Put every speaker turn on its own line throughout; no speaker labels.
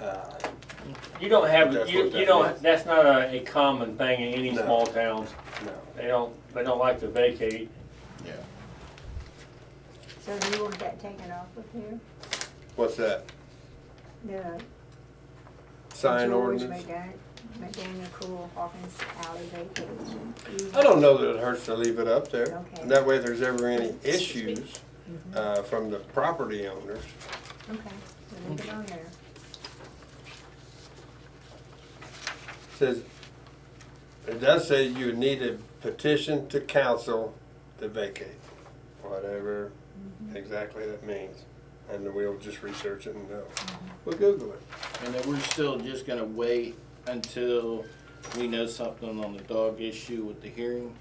uh,
You don't have,
That's
you,
what
you
that
don't,
is.
that's not a, a common thing in any
No.
small towns.
no.
They don't, they don't like to vacate.
Yeah.
So do you want that taken off of here?
What's that?
The
Sign
George
ordinance?
McDan- McDaniel Cool Hawkins Alley vacation.
I don't know that it hurts to leave it up there.
Okay.
And that way, if there's ever any issues, uh, from the property owners,
Okay, so leave it on there.
says, it does say you need a petition to council to vacate, whatever exactly that means. And we'll just research it and know. We'll Google it.
And then we're still just gonna wait until we know something on the dog issue with the hearing?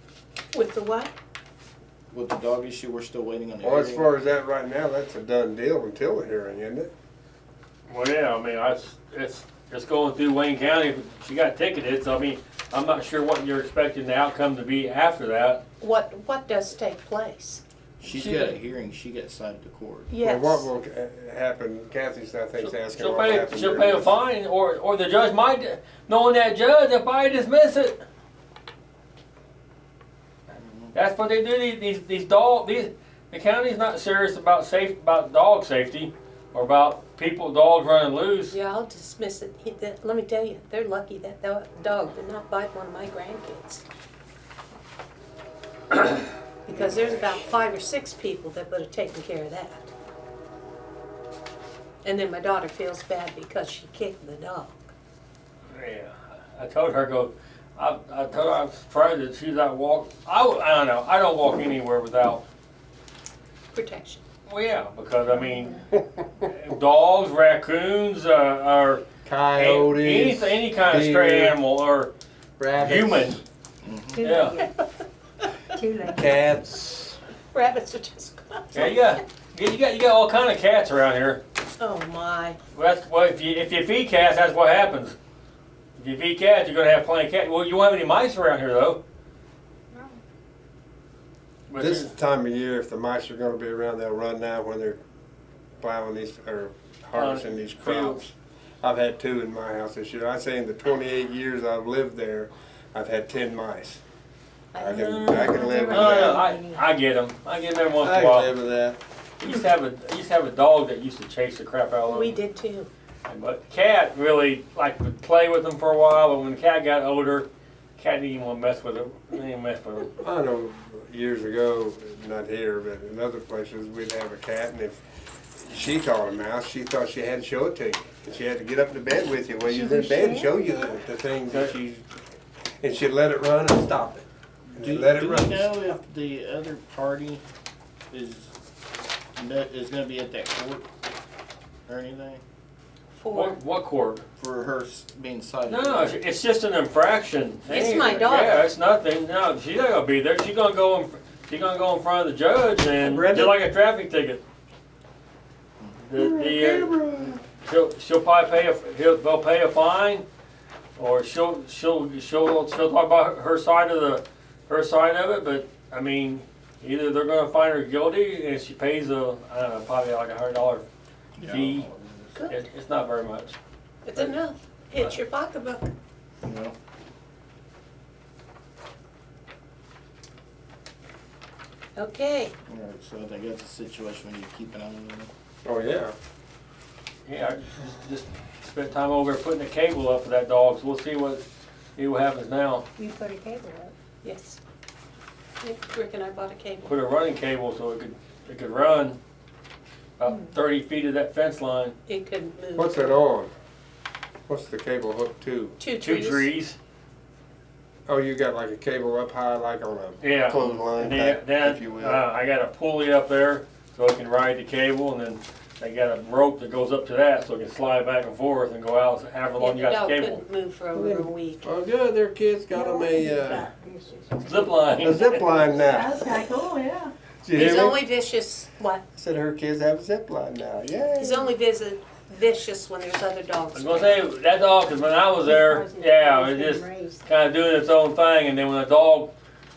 With the what?
With the dog issue, we're still waiting on the
Well, as
hearing?
far as that right now, that's a done deal until the hearing, isn't it?
Well, yeah, I mean, that's, it's, it's going through Wayne County. She got ticketed, so I mean, I'm not sure what you're expecting the outcome to be after that.
What, what does take place?
She's got a hearing, she got cited to court.
Yes.
Well, what will uh, happen, Kathy's, I think, is asking
She'll
what will
pay,
happen.
she'll
during
pay a
this.
fine, or, or the judge might, knowing that judge, they'll probably dismiss it. That's what they do, these- these, these dog, these, the county's not serious about safe, about dog safety, or about people, dogs running loose.
Yeah, I'll dismiss it. He- that- Let me tell you, they're lucky that tho- dog did not bite one of my grandkids. Because there's about five or six people that would have taken care of that. And then my daughter feels bad because she kicked the dog.
Yeah, I told her, I go, I, I told her, I'm surprised that she's not walk, I, w- I don't know, I don't walk anywhere without,
Protection.
well, yeah, because I mean, dogs, raccoons, uh, are.
Coyotes.
Any, any kind of stray
deer,
animal or
rabbits,
human.
Two-legged, two-legged.
Cats.
Rabbits are just.
Yeah, you got, you got, you got all kind of cats around here.
Oh, my.
Well, that's, well, if you, if you feed cats, that's what happens. If you feed cats, you're gonna have plenty of cats. Well, you won't have any mice around here though.
No.
But
This time of year, if the mice are gonna be around, they'll run now when they're plowing these, or harvesting these crops.
fields.
I've had two in my house this year. I say in the twenty-eight years I've lived there, I've had ten mice. I can, I can live with
No, no, no,
that.
I, I get them. I get them every once
I
in a
can
while.
live with that.
I used to have a, I used to have a dog that used to chase the crap out of them.
We did too.
But cat really like would play with them for a while, but when the cat got older, cat didn't even want to mess with him. Didn't even mess with him.
I know years ago, not here, but in other places, we'd have a cat, and if she caught a mouse, she thought she had to show it to you. And she had to get up to bed with you while you
She
was in
was
bed and
sharing
show you the, the things that she, and she'd let it run and stop it. And
Do,
let it
do we
run.
know if the other party is, is gonna be at that court or anything?
Four.
What, what court?
For her s- being cited?
No, no, it's, it's just an infraction.
It's
Hey,
my daughter.
Yeah, it's nothing. No, she's not gonna be there. She's gonna go in. She's gonna go in front of the judge and
Brenda?
just like a traffic ticket. The, the, uh, she'll, she'll probably pay a he'll, they'll pay a fine, or she'll she'll she'll she'll talk about her side of the her side of it. But I mean, either they're gonna find her guilty and she pays a I don't know, probably like a hundred dollar fee.
Good.
It, it's not very much.
It's enough. It's your pocketbook.
You know?
Okay.
Alright, so I think that's a situation we need to keep an eye on.
Oh, yeah.
Yeah, I just- just spent time over there putting a cable up for that dog, so we'll see what, see what happens now.
You put a cable up.
Yes. Rick Rick and I bought a cable.
Put a running cable so it could, it could run
Hmm.
about thirty feet of that fence line.
It couldn't move.
What's it on? What's the cable hooked to?
Two
Two
trees.
trees,
Oh, you got like a cable up high, like on a
yeah.
clothesline
And then,
type, if you
then,
will.
uh, I got a pulley up there so it can ride the cable and then I got a rope that goes up to that so it can slide back and forth and go out however
Yeah,
long
the
you got
dog
the cable.
couldn't move for over a week.
Oh, good, their kids got them a, uh,
This is-
Zip line.
a zip line now.
That's kinda cool, oh, yeah.
Did you hear
His
me?
only vicious, what?
Said her kids have a zip line now, yay.
He's only visit, vicious when there's other
I
dogs.
was gonna say, that dog, cause when I was there, yeah, it just, kind of doing its own thing, and then when the dog,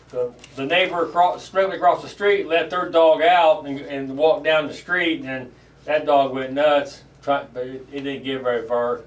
the, the neighbor across, directly across the street, let their dog out and, and walked down the street, and then that dog went nuts. Tried, but it, it didn't get very far.